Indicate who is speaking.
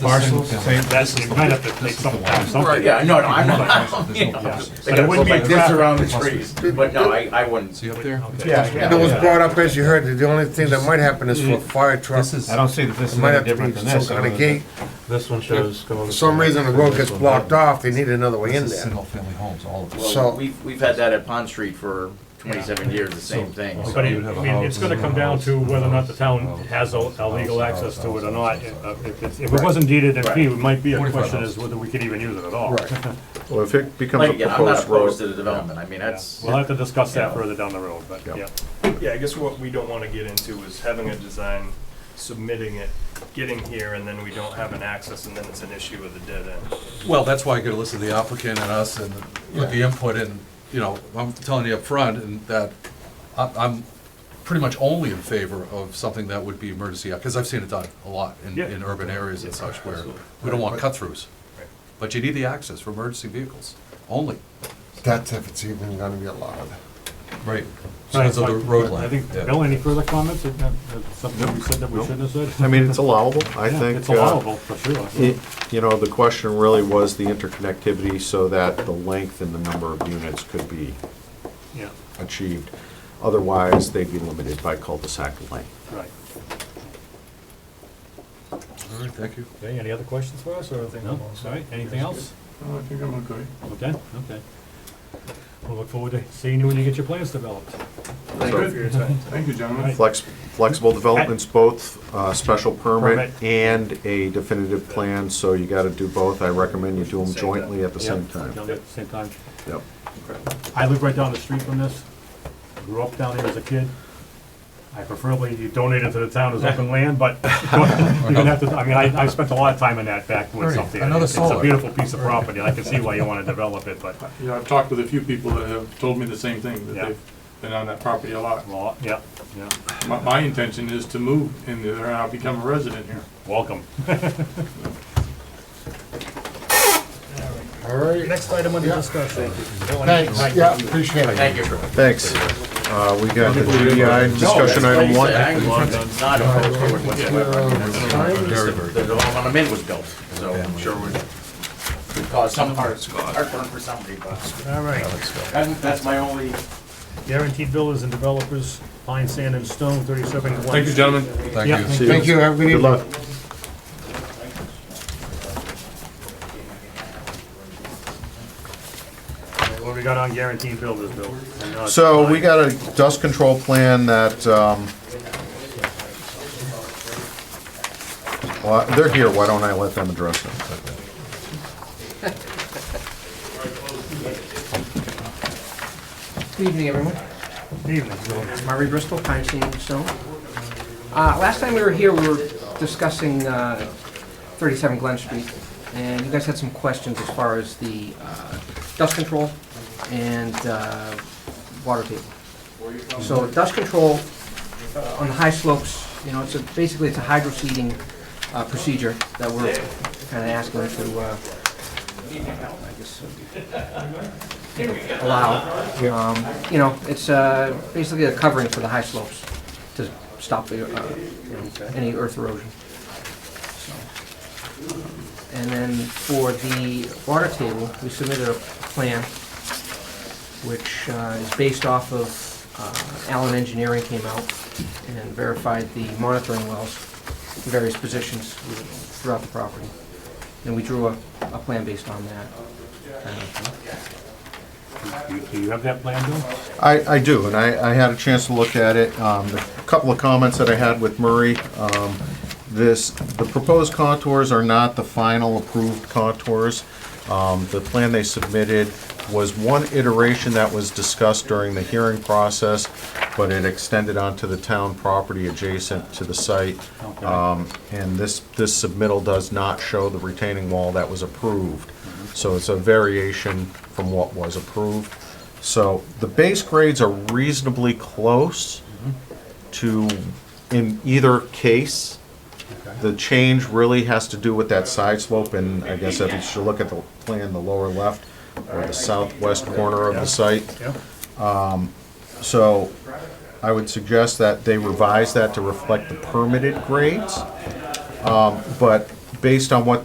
Speaker 1: parcels, same,
Speaker 2: That's, you might have to make some, have
Speaker 3: Right,
Speaker 2: something.
Speaker 3: yeah, no, no, I'm not.
Speaker 2: Yeah.
Speaker 3: Like,
Speaker 2: But
Speaker 3: I
Speaker 2: it
Speaker 3: wouldn't
Speaker 2: wouldn't be
Speaker 3: make this
Speaker 2: traffic.
Speaker 3: around the trees, but no, I, I wouldn't.
Speaker 4: See up there?
Speaker 1: yeah,
Speaker 2: Yeah.
Speaker 5: And it was
Speaker 1: yeah.
Speaker 5: brought up, as you heard, that the only thing that might happen is for a fire truck.
Speaker 4: This is,
Speaker 1: I don't see that this
Speaker 5: It
Speaker 1: is
Speaker 5: might
Speaker 1: any
Speaker 5: have to
Speaker 1: different
Speaker 5: be
Speaker 1: than
Speaker 5: some
Speaker 1: this.
Speaker 5: kind
Speaker 1: other
Speaker 5: of
Speaker 1: than-
Speaker 5: gate.
Speaker 6: This one shows going.
Speaker 5: For some reason, the road gets blocked off, they need another way in
Speaker 4: this is
Speaker 5: there.
Speaker 4: single-family homes, all of it.
Speaker 5: So-
Speaker 3: Well, we've, we've had that at Pond Street for twenty-seven years, the same thing.
Speaker 2: But it- I mean, it's gonna come down to whether or not the town has a a legal access to it or not. If if it's- if it wasn't deeded in fee, it might be a
Speaker 4: Forty-five
Speaker 2: question
Speaker 4: houses.
Speaker 2: as whether we could even use it at all.
Speaker 5: Right.
Speaker 6: Well, if it becomes
Speaker 3: Like,
Speaker 6: a
Speaker 3: again, I'm not
Speaker 6: proposed
Speaker 3: opposed to
Speaker 6: road,
Speaker 3: the development, I mean, that's,
Speaker 2: We'll have to discuss that further down the road, but,
Speaker 6: Yeah.
Speaker 2: yeah.
Speaker 7: Yeah, I guess what we don't want to get into is having a design, submitting it, getting here, and then we don't have an access, and then it's an issue with a dead end.
Speaker 8: Well, that's why I gotta listen to the applicant and us and put the input in, you know, I'm telling you up front and that I- I'm pretty much only in favor of something that would be emergency, because I've seen it done a lot in,
Speaker 2: Yeah.
Speaker 8: in urban areas and such where we don't want cut-throughs. But you need the access for emergency vehicles, only.
Speaker 5: That's if it's even gonna be allowed.
Speaker 8: Right. Because of the road
Speaker 2: I
Speaker 8: length.
Speaker 2: think,
Speaker 8: yeah.
Speaker 2: Bill, any further comments? Is that- that's Something we said that we shouldn't have
Speaker 6: I
Speaker 2: said?
Speaker 6: mean, it's allowable, I
Speaker 2: Yeah,
Speaker 6: think.
Speaker 2: It's
Speaker 6: uh,
Speaker 2: allowable, for sure.
Speaker 6: it- You know, the question really was the interconnectivity so that the length and the number of units could be
Speaker 2: Yeah,
Speaker 6: achieved. Otherwise, they'd be limited by cul-de-sac length.
Speaker 2: right.
Speaker 8: All right, Thank you.
Speaker 2: Okay, any other questions for us, or anything else? All right, anything else? I think I'm okay. Okay, okay. We'll look forward to seeing you when you get your plans developed.
Speaker 7: Thank you for your time. Thank you, gentlemen.
Speaker 6: Flex, flexible developments, both uh, special permit
Speaker 2: Permit.
Speaker 6: and a definitive plan, so you gotta do both. I recommend you do them
Speaker 7: Same time.
Speaker 6: jointly at the same time.
Speaker 2: Down there at the Same time.
Speaker 6: Yep.
Speaker 2: I live right down the street from this, grew up down here as a kid. I preferably you donate it to the town as open land, but you're gonna have to, I mean, I, I spent a lot of time in that back when
Speaker 8: Ernie,
Speaker 2: something.
Speaker 8: another
Speaker 2: It's
Speaker 8: solar.
Speaker 2: a beautiful piece of property, and I can see why you wanna develop it, but,
Speaker 9: Yeah, I've talked with a few people that have told me the same thing, that
Speaker 2: Yeah.
Speaker 9: they've been on that property a lot.
Speaker 2: well, yeah, yeah,
Speaker 9: My, my intention is to move in there and I'll become a resident here.
Speaker 2: welcome.
Speaker 5: All right,
Speaker 2: Next item under discussion.
Speaker 5: thanks, yeah, appreciate it.
Speaker 3: thank you.
Speaker 6: Thanks. Uh, We got the GDI discussion
Speaker 3: No,
Speaker 6: item
Speaker 3: that's
Speaker 6: one.
Speaker 3: what you said, I'm Not opposed to it whatsoever.
Speaker 8: Very, very
Speaker 3: The development I'm in was built, so I'm sure it would cause some heart- heartburn for somebody, but
Speaker 2: All right.
Speaker 3: that's, that's my only
Speaker 2: Guaranteed builders and developers, fine sand and stone, thirty-seven one.
Speaker 9: Thank you, gentlemen.
Speaker 2: Yeah.
Speaker 8: Thank you.
Speaker 5: Thank you, have a good
Speaker 6: Good
Speaker 5: evening.
Speaker 6: luck.
Speaker 2: What we got on guaranteed builders, Bill? I know it's
Speaker 6: So
Speaker 2: fine.
Speaker 6: we got a dust control plan that, um, well, they're here, why don't I let them address it?
Speaker 10: Good evening, everyone.
Speaker 2: Evening, Bill.
Speaker 10: It's Murray Bristol, Pine Sand Stone. Uh, Last time we were here, we were discussing uh, 37 Glen Street, and you guys had some questions as far as the uh, dust control and uh, water table. So dust control uh, on the high slopes, you know, it's a, basically, it's a hydro seeding uh, procedure that we're kind of asking to, uh, I guess, uh, allow. Um, You know, it's uh, basically a covering for the high slopes to stop the, uh, you know, any earth erosion. So, um, And then for the water table, we submitted a plan which uh, is based off of uh, Allen Engineering came out and verified the monitoring wells, in various positions throughout the property. And we drew a, a plan based on that. Uh,
Speaker 2: Do you- Do you have that plan, Bill?
Speaker 6: I, I do, and I, I had a chance to look at it. Um, the couple of comments that I had with Murray, um, this, the proposed contours are not the final approved contours. Um, the plan they submitted was one iteration that was discussed during the hearing process, but it extended onto the town property adjacent to the site. Um, and this, this submittal does not show the retaining wall that was approved. So it's a variation from what was approved. So the base grades are reasonably close to, in either case. The change really has to do with that side slope, and I guess if you should look at the plan, the lower left, or the southwest corner of the site. Um,
Speaker 2: Yeah.
Speaker 6: So I would suggest that they revise that to reflect the permitted grades. Um, But based on what